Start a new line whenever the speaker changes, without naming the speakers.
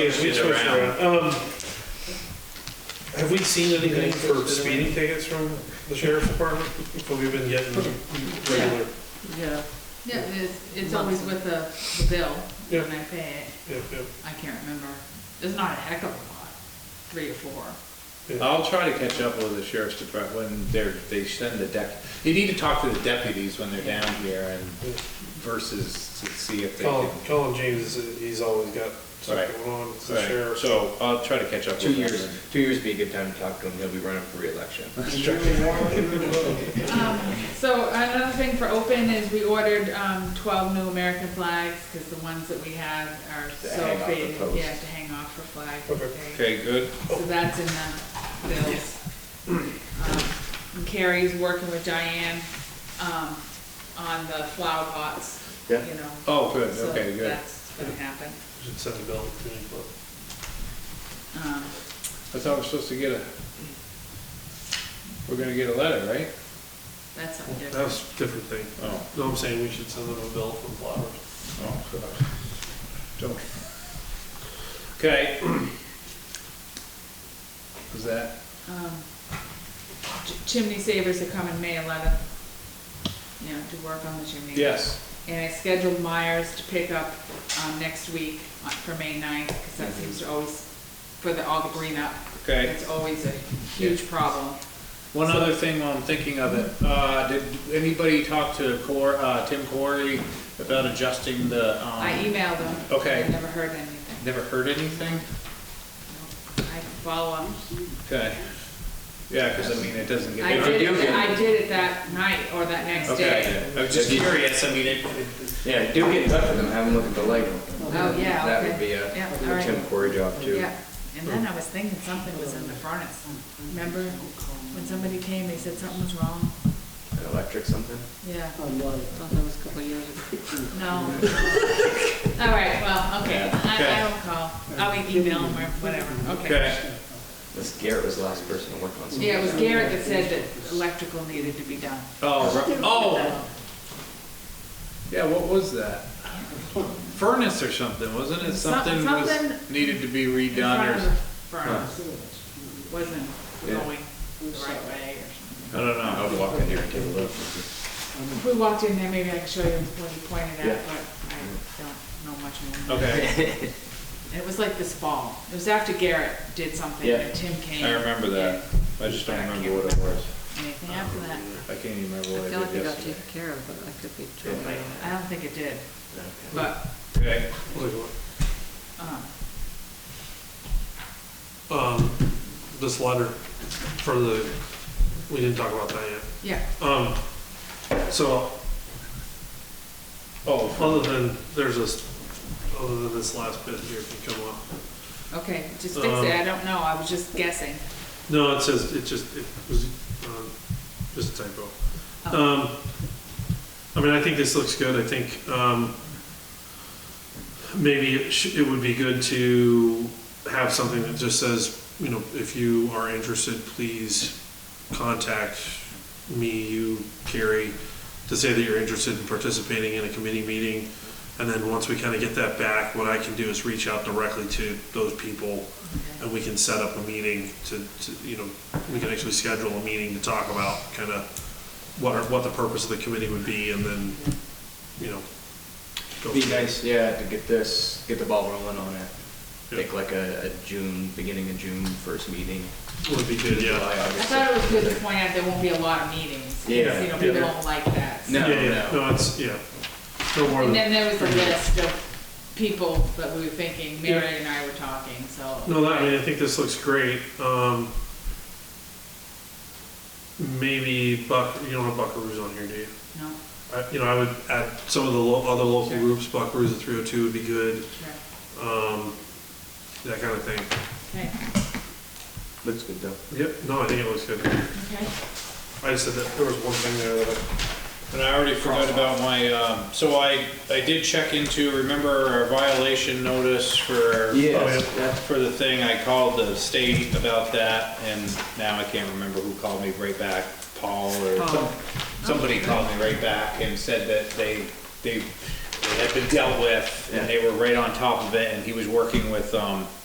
Yes, we
Get
switched
around.
around. Um, Have we seen anything for speeding tickets from the sheriff's department? Have we been getting
Hmm.
regular?
Yeah,
Yeah, it's, it's always with the, the bill,
Yeah.
when I pay it,
Yeah, yeah,
I can't remember, it's not a heck of a lot, three or four.
I'll try to catch up with the sheriff's department when they're, they send the dep, you need to talk to the deputies when they're down here and
yeah.
versus to see if they can.
Colin, Colin James, is- he's always got something
Right.
going on, it's the
Right,
sheriff.
So I'll try to catch up with
Two
them.
years, two years would be a good time to talk to him, he'll be running for reelection.
Um, So another thing for open is we ordered, um, twelve new American flags, cause the ones that we have are
To
so
hang off the
faded,
post.
yeah, to hang off for flag.
Okay.
day.
Okay, good.
So that's in the bills. Um, and Carrie's working with Diane, um, on the flower pots, you
Yeah.
know.
Oh, good,
So
okay, good.
that's gonna happen.
Should send a bill to me, but
Um,
I thought we're supposed to get a, we're gonna get a letter, right?
That's something
that
different.
was a different thing.
Oh,
No, I'm saying we should send them a bill for flowers.
oh, good. Don't. Okay. Was that,
Um, ch- Chimney savers are coming May eleventh, you know, to work on the chimney.
yes,
And I scheduled Myers to pick up, um, next week on- for May 9th because that seems to always, for the, all the green up.
okay.
It's always a huge problem.
One other thing while I'm thinking of it, uh, did anybody talk to Cor, uh, Tim Corey about adjusting the, um?
I e- emailed them.
Okay.
I never heard anything.
Never heard anything?
I can follow up.
Okay. Yeah, cause I mean, it doesn't get.
I
you
did,
do
it-
get-
I did it that night or that next day.
Okay, I was just
Did you-
curious, I mean, it,
Yeah, do get in touch with him, have him look at the lighting.
Oh, yeah,
That
okay.
would be
Yeah, all
a
right.
Tim Corey job too.
Yeah, and then I was thinking something was in the furnace. Remember when somebody came, they said something was wrong?
An Electric something?
Yeah,
thought that was a couple of years ago.
no. All right, well, okay,
Yeah,
I,
okay.
I don't call. I'll e-, email them or whatever, okay.
okay,
This Garrett was the last person to work on something.
Yeah, it was Garrett that said that electrical needed to be done.
oh, ri- oh. Yeah, what was that? Furnace or something, wasn't it?
Some-
Something was,
something-
needed to be
In
redone
front
or,
of
s-
the Furnace wasn't
Yeah.
going the right way or
I don't
I would
know.
walk in here and take a look.
something. If we walked in there, maybe I could show you what he pointed
Yeah.
at, but I don't know much more.
Okay,
It was like this fall. It was after Garrett did something
Yeah.
and Tim came.
I remember that. I just don't remember what it was.
Anything after that?
I can't even remember
I
what I
feel like
did
it got
yesterday.
taken care of, but I could be totally wrong.
I don't think it did, but,
Okay.
Wait, what?
um,
Um, this letter for the, we didn't talk about that yet.
yeah.
Um, so, oh, other than, there's this, other than this last bit here, if you come up.
Okay, just fix
Um,
it. I don't know. I was just guessing.
No, it says, it just, it was, um, just a typo.
Oh,
Um, I mean, I think this looks good, I think, um, maybe it sh- it would be good to have something that just says, you know, if you are interested, please contact me, you, Carrie, to say that you're interested in participating in a committee meeting. And then once we kind of get that back, what I can do is reach out directly to those people
okay.
and we can set up a meeting to, to, you know, we can actually schedule a meeting to talk about kind of what, are- what the purpose of the committee would be and then, you know. go
Be
from there.
nice, yeah, to get this, get the ball rolling on it.
Yeah.
Think like a, a June, beginning of June first meeting.
Would be good, yeah.
July,
I
August.
thought it was good to point out there won't be a lot of meetings. 'cause,
Yeah,
You know,
yeah.
people don't like that. so-
No,
Yeah, yeah,
no.
no, it's, yeah. No more
And
than,
then there was a list of people that we were thinking, Mary and I were talking, so.
no, that, I mean, I think this looks great, um. Maybe Buck, you don't have Buckaroo's on here, do you?
No,
I, you know, I would add some of the lo- other local
Sure.
groups, Buckaroo's at three oh two would be good,
sure.
um, that kind of thing.
Okay,
Looks good though.
Yep, no, I think it looks good.
okay.
I just said that there was one thing there that I,
And I already forgot about my, um, so I, I did check into, remember our violation notice for, oh,
Yes, yeah.
for the thing, I called the state about that, and now I can't remember who called me right back, Paul or some-
Paul.
somebody called me right back and said that they, they, had been dealt with, and
Yeah.
they were right on top of it, and he was working with, um,